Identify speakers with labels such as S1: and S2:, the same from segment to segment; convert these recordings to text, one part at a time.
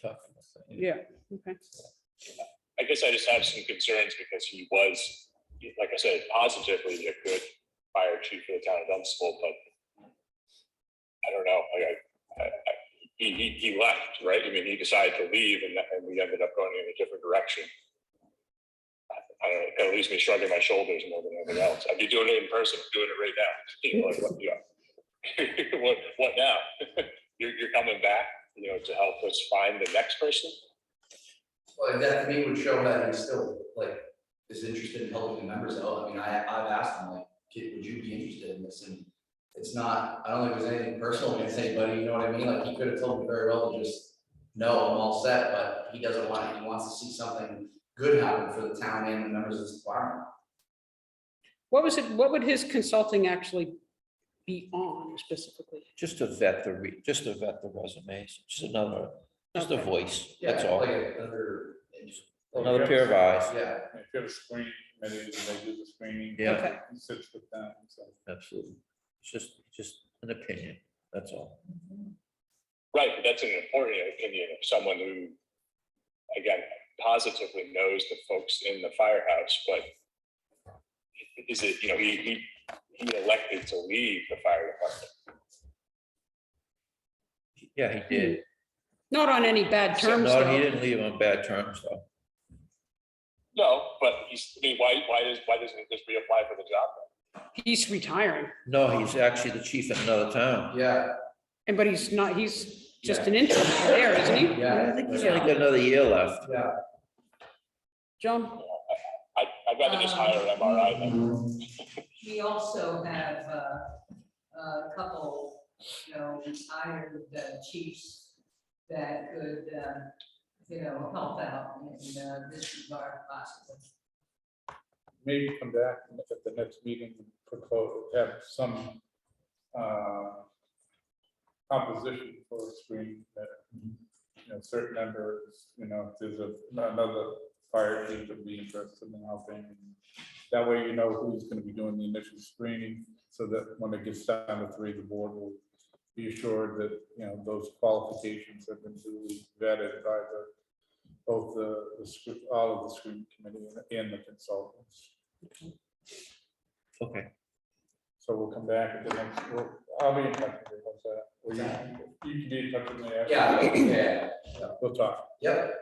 S1: Chuck.
S2: Yeah, okay.
S3: I guess I just have some concerns because he was, like I said, positively a good fire chief for the town of Dunstable, but I don't know, like I, I, I, he, he, he left, right? I mean, he decided to leave and, that- and we ended up going in a different direction. I- I don't know, it kind of leaves me shrugging my shoulders more than anything else. I'd be doing it in person, I'm doing it right now. You know, like, what, yeah. What, what now? You're, you're coming back, you know, to help us find the next person?
S4: Well, that to me would show that he's still like, is interested in helping the members out. I mean, I, I've asked him like, kid, would you be interested in this? And it's not, I don't think there's anything personal against anybody, you know what I mean? Like, he could have told me very well to just, no, I'm all set, but he doesn't want it. He wants to see something good happen for the town and the members of this department.
S2: What was it, what would his consulting actually be on specifically?
S1: Just to vet the, re- just to vet the resumes, just another, just a
S2: Okay.
S1: voice, that's all.
S4: Like another.
S1: Another pair of eyes,
S4: Yeah,
S5: If you have a screening committee, they do the screening.
S1: Yeah.
S2: Okay.
S5: He sits with them, so.
S1: absolutely. It's just, just an opinion, that's all.
S3: Right, but that's an important opinion of someone who, again, positively knows the folks in the firehouse, but is it, you know, he, he, he elected to leave the fire department.
S1: Yeah, he did.
S2: Not on any bad terms,
S1: No, he
S2: though.
S1: didn't leave on bad terms, though.
S3: No, but he's, I mean, why, why does, why doesn't he just reapply for the job?
S2: He's retiring,
S1: No, he's actually the chief in another town.
S4: yeah,
S2: and but he's not, he's just an interim there, isn't he?
S4: yeah.
S1: I think he's only got another year left.
S4: Yeah.
S2: John,
S3: I, I'd rather just hire an MRI than
S6: Um, We also have uh, a couple, you know, retired uh, chiefs that could, uh, you know, help out in uh, this regard possibly.
S5: Maybe come back at the next meeting, and propose, have some uh, composition for a screen that, you know, certain members, you know, if there's a- another fire chief would be interested in helping. That way you know who's gonna be doing the initial screening, so that when it gets down to three, the board will be assured that, you know, those qualifications have been duly vetted by the, both the, the scr- all of the screening committee and- and the consultants.
S1: Okay,
S5: So we'll come back at the next, we'll, I'll be in touch with you, what's that? Will you, you can be in touch with me after?
S4: Yeah, yeah,
S5: We'll talk,
S4: yep,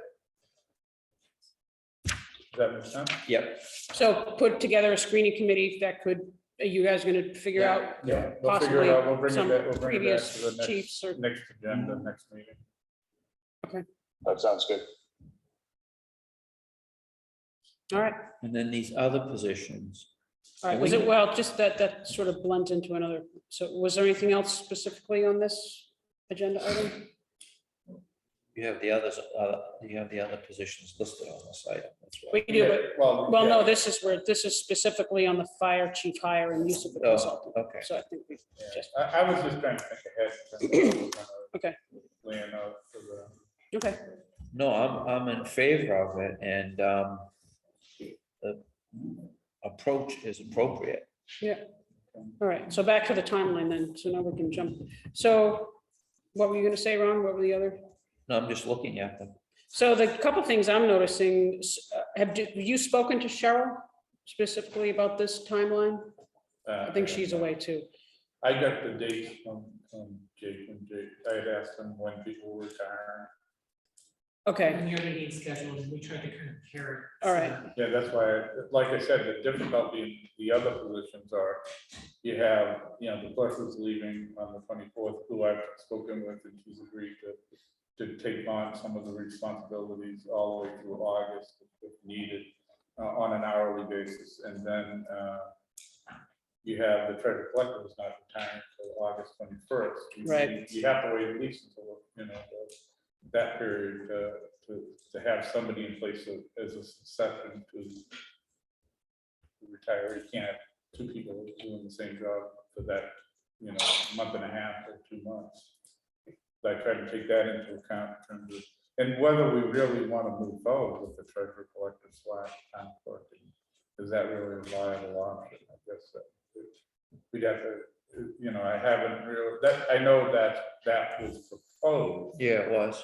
S5: does that make sense?
S1: yep,
S2: so put together a screening committee that could, are you guys gonna figure
S4: Yeah.
S2: out
S5: Yeah. We'll figure
S2: possibly
S5: it out, we'll bring it
S2: some
S5: back, we'll bring it back to
S2: previous
S5: the next,
S2: chiefs or,
S5: next agenda, next meeting.
S3: That sounds good.
S2: all right,
S1: and then these other positions.
S2: all right, was it, well, just that, that sort of blends into another, so was there anything else specifically on this agenda item?
S1: You have the others, uh, you have the other positions listed on the site, that's why.
S2: We do, but,
S5: Well,
S2: well, no,
S5: yeah,
S2: this is where, this is specifically on the fire chief hire and use of the
S1: Oh,
S2: consultant,
S1: Okay,
S2: so I think we
S5: yeah.
S2: just-
S5: I, I was just trying to think ahead.
S2: Okay.
S5: Laying out for the.
S2: Okay,
S1: no, I'm, I'm in favor of it and, um, the approach is appropriate.
S2: all right, so back to the timeline then, so now we can jump. So what were you gonna say, Ron? What were the other?
S1: No, I'm just looking at them.
S2: So the couple things I'm noticing, s- uh, have you- you spoken to Cheryl specifically about this timeline?
S5: uh,
S2: I think she's away too.
S5: I got the dates from, from Jake and Jake, I had asked him when people were retiring.
S2: Okay,
S7: When you're meeting schedules, we try to kind of pair. it.
S2: all right,
S5: Yeah, that's why, like I said, the difficulty in the other positions are, you have, you know, the person's leaving on the twenty-fourth, who I've spoken with, and she's agreed to, to take on some of the responsibilities all the way through August if needed, uh, on an hourly basis, and then, uh, you have the treasure collector is not retiring until August twenty-first.
S2: Right.
S5: You have to wait at least until, you know, the- that period to, to, to have somebody in place a- as a succession to retire, you can't have two people doing the same job for that, you know, month and a half or two months. I try to take that into account in terms of, and whether we really want to move forward with the treasurer collector slash town clerk. Is that really a viable option? I guess that we'd have to, you know, I haven't really, that, I know that that was proposed.
S1: Yeah, it was.